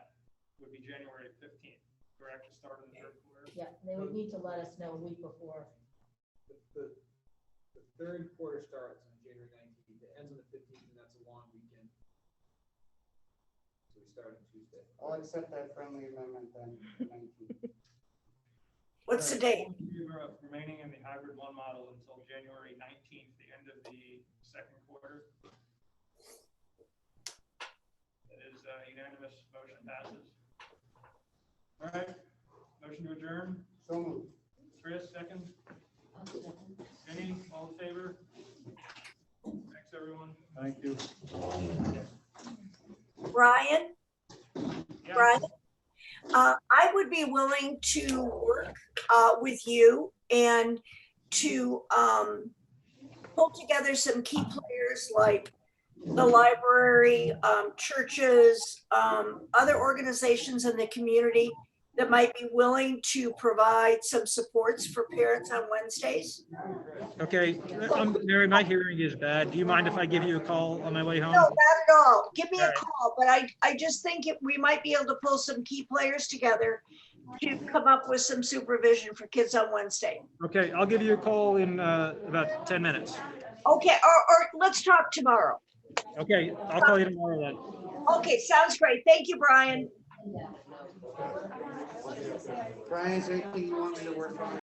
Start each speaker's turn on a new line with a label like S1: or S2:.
S1: January fifteenth, correct, to start in the third quarter?
S2: Yeah, they would need to let us know a week before.
S3: The, the, the third quarter starts on January nineteenth, it ends on the fifteenth, and that's a long weekend. So we start on Tuesday.
S4: I'll accept that friendly amendment then, for 19.
S5: What's the date?
S1: All in favor of Remaining in the hybrid one model until January nineteenth, the end of the second quarter. It is uh, unanimous, motion passes. All right, motion to adjourn,
S4: So moved.
S1: Chris, second, Jenny, all in favor? Thanks, everyone.
S6: Thank you.
S5: Brian,
S1: Yeah.
S5: Brian? Uh, I would be willing to work, uh, with you and to, um, pull together some key players like the library, um, churches, um, other organizations in the community that might be willing to provide some supports for parents on Wednesdays.
S6: Okay, I'm, Mary, my hearing is bad. Do you mind if I give you a call on my way
S5: No,
S6: home?
S5: not at all. Give me a
S6: Alright.
S5: call, but I, I just think it- we might be able to pull some key players together to come up with some supervision for kids on Wednesday.
S6: Okay, I'll give you a call in, uh, about ten minutes.
S5: Okay, or, or let's talk tomorrow.
S6: Okay, I'll call you tomorrow then.
S5: Okay, sounds great. Thank you, Brian.
S4: Brian, is there anything you want me to work on?